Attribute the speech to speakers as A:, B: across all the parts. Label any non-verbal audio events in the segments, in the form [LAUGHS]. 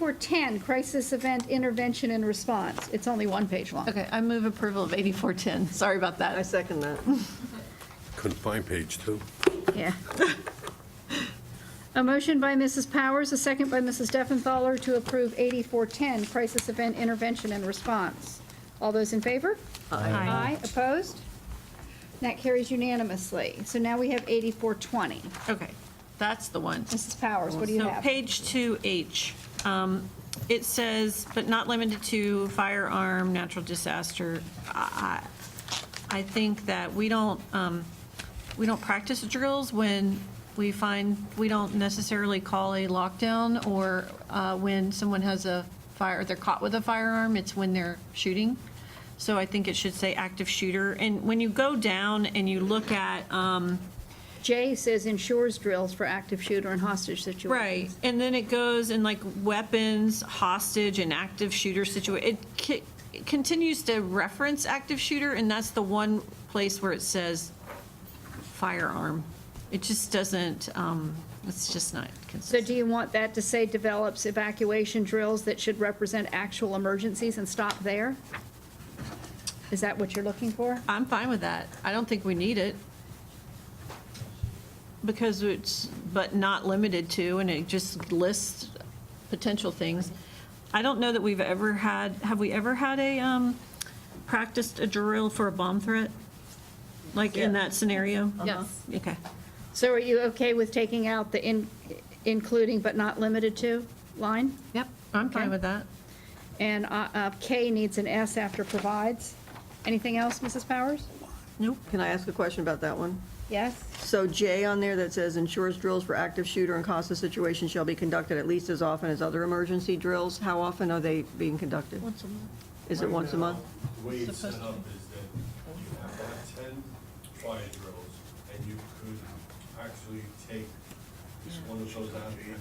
A: 8410, crisis event intervention and response. It's only one page long.
B: Okay, I move approval of 8410. Sorry about
C: I
B: that.
C: second that.
D: Couldn't find page two.
A: Yeah. [LAUGHS] A motion by Mrs. Powers, a second by Mrs. Steffenthaler to approve 8410, crisis event intervention and response. All those in favor? Aye. opposed? And that carries unanimously. So now we have 8420.
B: Okay, that's the one.
A: Mrs. Powers, what do you
E: So
A: have?
E: page 2H, um, it says, but not limited to firearm, natural disaster. I I- I think that we don't, um, we don't practice drills when we find, we don't necessarily call a lockdown or uh, when someone has a fire, they're caught with a firearm, it's when they're shooting. So I think it should say active shooter. And when you go down and you look at, um,
A: Jay says ensures drills for active shooter and hostage situations.
E: Right, and then it goes in like weapons, hostage, and active shooter situation. It ki- it continues to reference active shooter, and that's the one place where it says firearm. It just doesn't, um, it's just not
A: So do
E: consistent.
A: you want that to say develops evacuation drills that should represent actual emergencies and stop there? Is that what you're looking for?
E: I'm fine with that. I don't think we need it. Because it's, but not limited to, and it just lists potential things. I don't know that we've ever had, have we ever had a, um, practiced a drill for a bomb threat? Like in that scenario?
B: Yes.
E: Okay.
A: So are you okay with taking out the in, including but not limited to line?
E: Yep, I'm
A: Okay.
E: fine with that.
A: And uh, uh, K needs an S after provides. Anything else, Mrs. Powers?
E: Nope.
C: Can I ask a question about that one?
A: Yes?
C: So J on there that says ensures drills for active shooter and hostage situations shall be conducted at least as often as other emergency drills. How often are they being conducted?
E: Once a month.
C: Is it once a month?
F: The way it's set
E: Supposed
F: up is that you have to have ten fire drills, and you could actually take this one of those out and put in,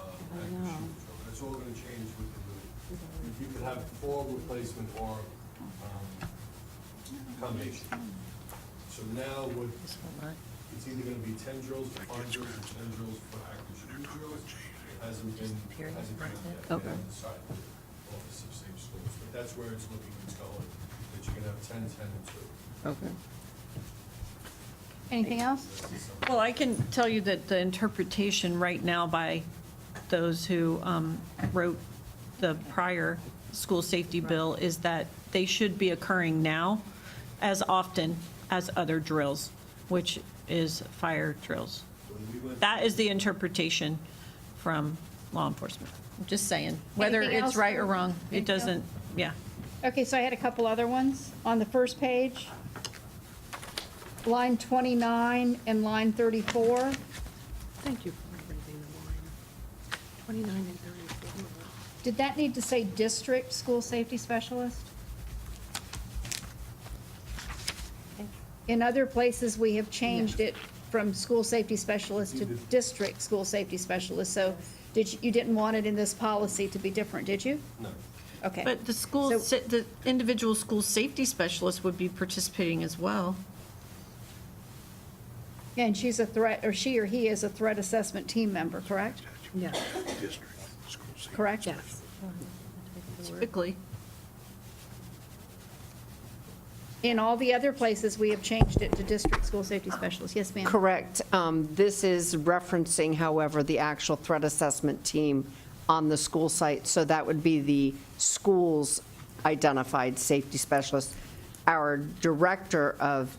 F: uh, active shooter drill. That's all gonna change with the move. You could have four replacement or, um, combination. So now what, it's either gonna be ten drills for fire drills or ten drills for active shooter drills. It Hasn't been, hasn't been yet. They
C: Okay.
F: haven't decided with the Office of Safe Schools, but that's where it's looking, it's going, that you're gonna have ten, ten, and two.
C: Okay.
A: Anything else?
E: Well, I can tell you that the interpretation right now by those who um, wrote the prior school safety bill is that they should be occurring now as often as other drills, which is fire drills. That is the interpretation from law enforcement. I'm Just saying, whether
A: Anything
E: it's
A: else?
E: right or wrong, it
A: Anything else?
E: doesn't, yeah.
A: Okay, so I had a couple other ones. On the first page, line 29 and line 34.
G: Thank you for reading the line. 29 and 34.
A: Did that need to say district school safety specialist? In other places, we have changed it from school safety specialist to district school safety specialist. So did, you you didn't want it in this policy to be different, did you?
F: No.
A: Okay.
E: But the school,
A: So-
E: sa- the individual school safety specialist would be participating as well.
A: And she's a threat, or she or he is a threat assessment team member, correct?
G: Yes,
D: District, school safety.
A: Correct?
G: yes.
E: Typically.
A: In all the other places, we have changed it to district school safety specialist. Yes, ma'am?
H: Correct. Um, This is referencing, however, the actual threat assessment team on the school site, so that would be the school's identified safety specialist. Our director of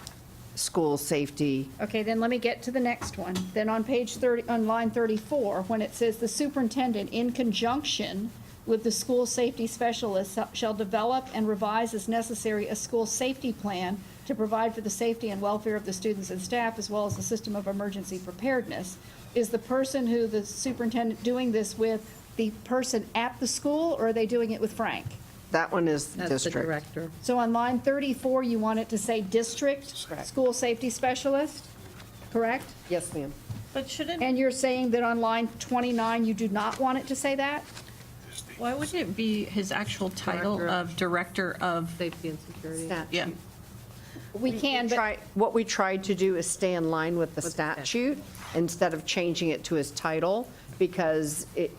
H: school safety
A: Okay, then let me get to the next one. Then on page 30, on line 34, when it says the superintendent in conjunction with the school safety specialist shall develop and revise as necessary a school safety plan to provide for the safety and welfare of the students and staff as well as the system of emergency preparedness. Is the person who the superintendent doing this with the person at the school or are they doing it with Frank?
H: That one is the
G: That's the
H: district.
G: director.
A: So on line 34, you want it to say district
H: Correct.
A: school safety specialist, correct?
H: Yes, ma'am.
E: But shouldn't,
A: And you're saying that on line 29, you do not want it to say that?
E: why wouldn't it be his actual title
G: Director of-
E: of Director of,
G: Safety and security.
E: yeah,
A: We can, but,
H: Try- What we tried to do is stay in line with the
G: With the statute.
H: statute instead of changing it to his title, because it,